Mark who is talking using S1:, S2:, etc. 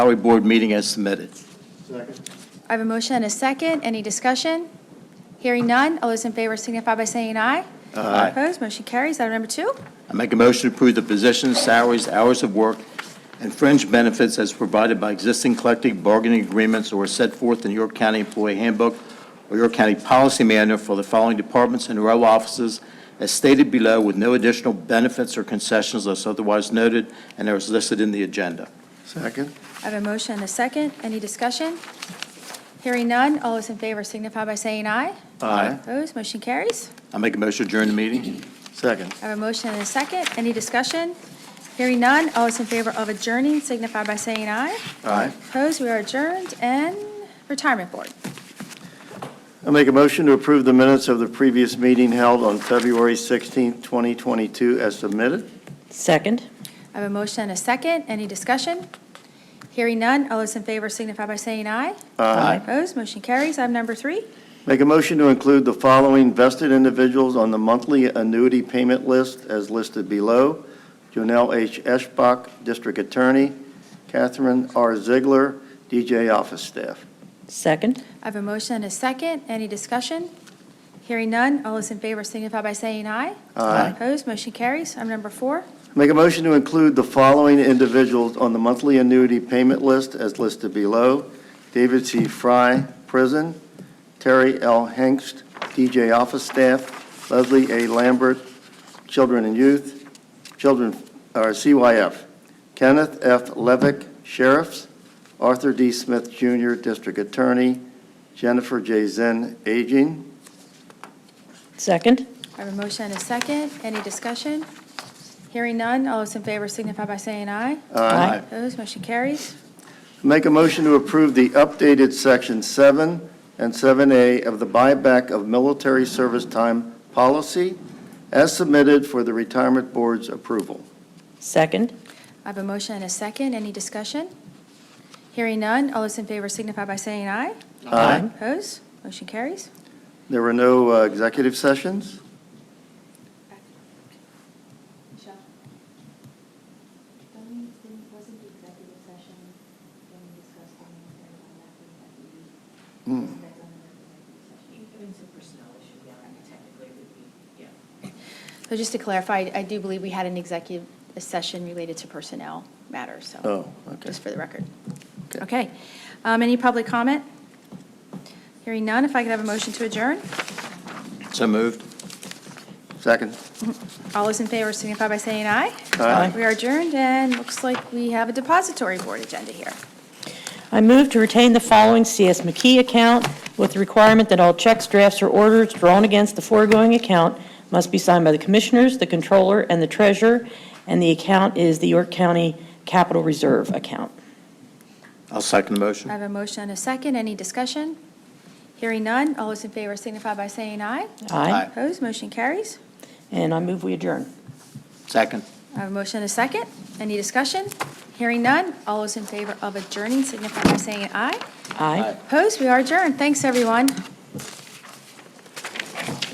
S1: Salary Board meeting as submitted.
S2: I have a motion and a second. Any discussion? Hearing none. All those in favor signify by saying aye.
S1: Aye.
S2: Opposed, motion carries. Item number two,
S1: I make a motion to approve the positions, salaries, hours of work, and fringe benefits as provided by existing collective bargaining agreements or set forth in York County Employee Handbook or York County Policy Manual for the following departments and row offices as stated below with no additional benefits or concessions unless otherwise noted and as listed in the agenda.
S3: Second.
S2: I have a motion and a second. Any discussion? Hearing none. All those in favor signify by saying aye.
S1: Aye.
S2: Opposed, motion carries.
S1: I make a motion to adjourn the meeting.
S3: Second.
S2: I have a motion and a second. Any discussion? Hearing none. All those in favor of adjourning signify by saying aye.
S3: Aye.
S2: Opposed, we are adjourned. And Retirement Board.
S3: I make a motion to approve the minutes of the previous meeting held on February 16th, 2022, as submitted.
S4: Second.
S2: I have a motion and a second. Any discussion? Hearing none. All those in favor signify by saying aye. Opposed, motion carries. Item number three.
S3: Make a motion to include the following vested individuals on the monthly annuity payment list as listed below. Jonell H. Eschbach, District Attorney, Catherine R. Ziegler, DJ Office Staff.
S4: Second.
S2: I have a motion and a second. Any discussion? Hearing none. All those in favor signify by saying aye.
S3: Aye.
S2: Opposed, motion carries. Item number four.
S3: Make a motion to include the following individuals on the monthly annuity payment list as listed below. David C. Fry, prison. Terry L. Hengst, DJ office staff. Leslie A. Lambert, children and youth, children, or CYF. Kenneth F. Levick, sheriffs. Arthur D. Smith, Jr., district attorney. Jennifer J. Zinn, aging.
S4: Second.
S2: I have a motion and a second. Any discussion? Hearing none. All those in favor signify by saying aye.
S4: Aye.
S2: Opposed, motion carries.
S3: Make a motion to approve the updated Section 7 and 7A of the buyback of military service time policy as submitted for the Retirement Board's approval.
S4: Second.
S2: I have a motion and a second. Any discussion? Hearing none. All those in favor signify by saying aye.
S4: Aye.
S2: Opposed, motion carries.
S3: There were no uh, executive sessions?
S5: Don't we- didn't- wasn't the executive session when we discussed the military contract that we,
S3: Hmm.
S5: wasn't that done in the executive session?
S6: It's a personnel issue, yeah, I mean, technically it would be, yeah.
S2: So just to clarify, I do believe we had an executive session related to personnel matters, so.
S3: Oh, okay.
S2: Just for the record.
S3: Okay.
S2: Okay. Um, Any public comment? Hearing none, if I could have a motion to adjourn?
S1: So moved.
S3: Second.
S2: All those in favor signify by saying aye.
S3: Aye.
S2: We are adjourned, and looks like we have a depository board agenda here.
S4: I move to retain the following CS McKee account with the requirement that all checks, drafts, or orders drawn against the foregoing account must be signed by the commissioners, the controller, and the treasurer, and the account is the York County Capital Reserve account.
S1: I'll second the motion.
S2: I have a motion and a second. Any discussion? Hearing none, all those in favor signify by saying aye.
S1: Aye.
S2: Opposed, motion carries.
S4: And I move we adjourn.
S1: Second.
S2: I have a motion and a second. Any discussion? Hearing none, all those in favor of adjourning signify by saying aye.
S4: Aye.
S2: Opposed, we are adjourned. Thanks, everyone.